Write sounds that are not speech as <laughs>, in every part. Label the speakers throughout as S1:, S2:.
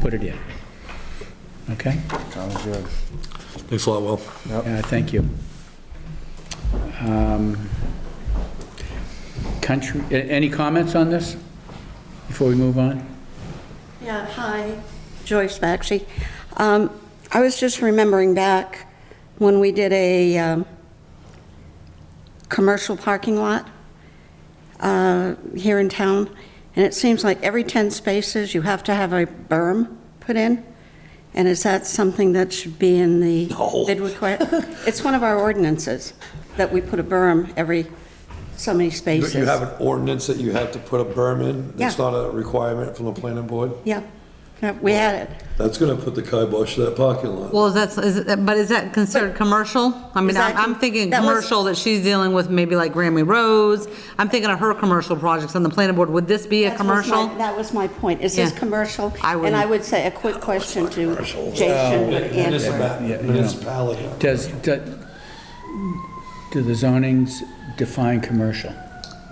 S1: put it in. Okay?
S2: Sounds good.
S3: Thanks a lot, Will.
S1: Yeah, thank you. Um, Country, a- any comments on this before we move on?
S4: Yeah, hi, Joyce Maxey. Um, I was just remembering back when we did a um, commercial parking lot uh, here in town, and it seems like every 10 spaces, you have to have a berm put in, and is that something that should be
S3: <laughs>
S4: in the bid request? It's one of our ordinances, that we put a berm every so many
S3: You
S4: spaces.
S3: you have an ordinance that you have to put a berm in? That's
S4: Yeah.
S3: not a requirement from the planning board?
S4: Yeah, Yeah, we had it.
S3: That's gonna put the kibosh to that parking lot.
S5: Well, is that, is it, but is that considered commercial? I mean, I'm, I'm thinking
S4: That was-
S5: commercial that she's dealing with, maybe like Grammy Rose. I'm thinking of her commercial projects on the planning board. Would this be a
S4: That was my-
S5: commercial?
S4: That was my point. Is this
S5: Yeah.
S4: commercial?
S5: I
S4: And I
S5: wouldn't-
S4: would say a quick question to Jason and Andrew.
S3: Municipal-
S1: Yeah, yeah.
S3: Municipality.
S1: Does, do do the zonings define commercial?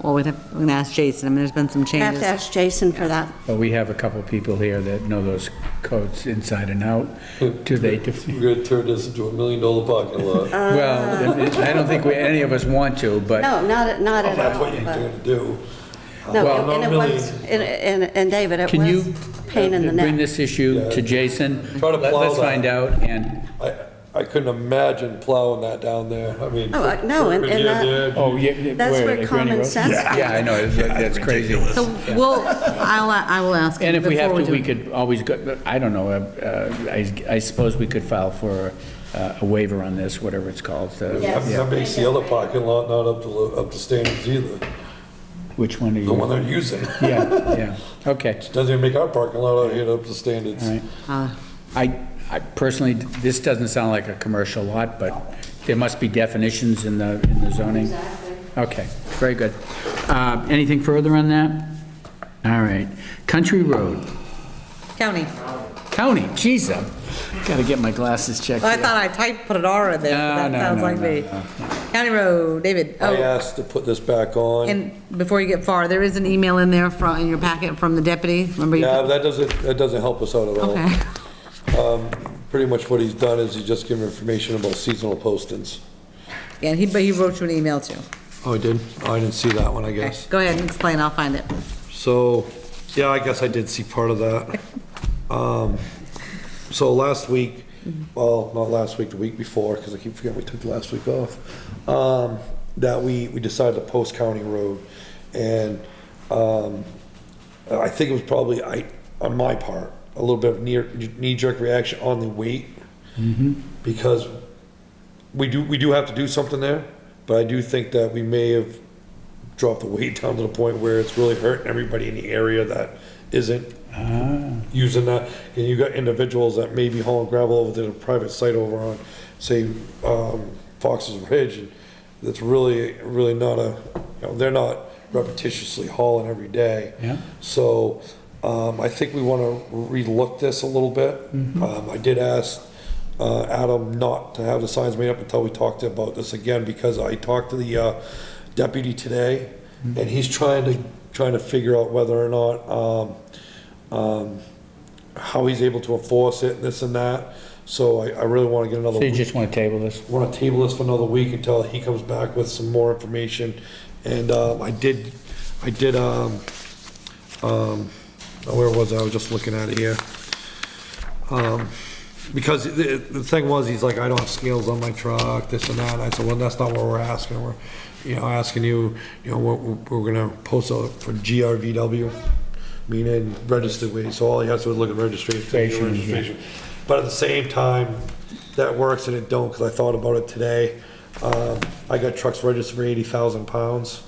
S5: Well, we'd have, we're gonna ask Jason. I mean, there's been some
S4: I have to
S5: changes.
S4: ask Jason for that.
S1: Well, we have a couple people here that know those codes inside and out. Do they, def-
S3: You're gonna turn this into a million dollar parking
S4: <laughs>
S3: lot.
S1: well, I don't think we, any of us want to, but,
S4: No, not, at- not at
S3: Oh, That's
S4: all.
S3: what you're
S4: but-
S3: gonna do.
S4: No,
S3: Well,
S4: and it
S3: not
S4: was, and, and- and David, it
S1: can
S4: was
S1: you
S4: pain in the
S1: bring
S4: neck.
S1: this issue to Jason?
S3: Try to
S1: Let-
S3: plow
S1: Let's
S3: that.
S1: find out, and,
S3: I, I couldn't imagine plowing that down there. I mean.
S4: Oh, I- no, and- and
S3: Yeah,
S4: that-
S3: there,
S1: oh, yeah.
S4: That's where
S1: Granny
S4: common
S1: Road?
S4: sense
S1: <laughs> Yeah, I know, it's- that's crazy.
S5: So we'll, I'll, a- I will ask.
S1: And if we have
S5: before
S1: to, we
S5: do-
S1: could always go, I don't know, uh, uh, I I suppose we could file for uh, a waiver on this, whatever it's called. uh,
S3: That that makes the other parking lot not up to, lo- up to standards either,
S1: Which one are you?
S3: the one they're using.
S1: Yeah, yeah, okay,
S3: Doesn't even make our parking lot out here up to standards.
S1: all right.
S5: Uh,
S1: I, I personally, this doesn't sound like a commercial lot, but there must be definitions in the, in the zoning. Okay, very good. Uh, Anything further on that? All right. Country Road,
S5: County.
S1: county, geez, i gotta get my glasses checked.
S5: I
S1: here.
S5: thought I typed, put an R in there,
S1: No,
S5: but
S1: no,
S5: that sounds
S1: no,
S5: like
S1: no,
S5: me.
S1: no,
S5: County Road, David.
S3: I
S5: Oh,
S3: asked to put this back on.
S5: and before you get far, there is an email in there from, in your packet from the deputy. Remember you?
S3: Yeah, that doesn't, that doesn't help us out at all.
S5: Okay.
S3: Pretty much what he's done is he's just given information about seasonal postings.
S5: Yeah, he, but he wrote you an email too.
S3: Oh, I did? Oh, I didn't see that one, I
S5: Okay,
S3: guess.
S5: Go ahead and explain, I'll find it.
S3: So, yeah, I guess I did see part of that. Um, So last week, well, not last week, the week before, because I keep forgetting we took the last week off, um, that we, we decided to post County Road. And um, I think it was probably, I, on my part, a little bit of near- knee-jerk reaction on the weight. Because we do, we do have to do something there, but I do think that we may have dropped the weight <laughs> down to the point where it's really hurting everybody in the area that isn't using that. And you got individuals that may be hauling gravel over to the private site over on, say, um, Fox's Ridge. and That's really, really not a, you know, they're not repetitiously hauling every day.
S1: Yeah.
S3: So, um, I think we want to relook this a little bit. Um, I did ask, uh, Adam not to have the signs made up until we talked about this again, because I talked to the, uh, deputy today, and he's trying to, trying to figure out whether or not, um, how he's able to enforce it, and this and that. So I, I really want to get another,
S1: So you just wanna table this?
S3: want to table this for another week until he comes back with some more information. And, um, I did, I did, um, um, oh, where was I? I was just looking at it here. Um, because the, the thing was, he's like, I don't have scales on my truck, this and that. And I said, well, that's not what we're asking. We're, you know, asking you, you know, we're, we're gonna post a, for GRVW, meaning registered weight. So all he has to do is look at registration.
S1: Registration, yeah.
S3: registration. But at the same time, that works and it don't, because I thought about it today. Um, I got trucks registered for eighty thousand pounds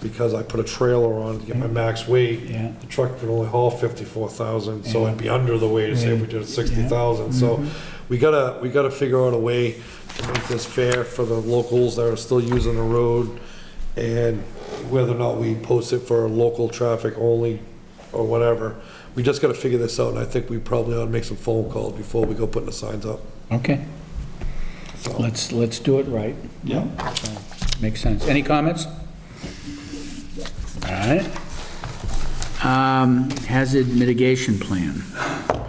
S3: because I put a trailer on to get my max weight.
S1: Yeah.
S3: The truck can only haul fifty-four thousand, so I'd be under the weight, say if we did sixty thousand. So
S1: Mm-hmm.
S3: we gotta, we gotta figure out a way to make this fair for the locals that are still using the road and whether or not we post it for local traffic only or whatever. We just gotta figure this out, and I think we probably ought to make some phone calls before we go putting the signs up.
S1: Okay. Let's, let's do it right. Yeah. Makes sense. Any comments? All right. Um, Hazard mitigation plan.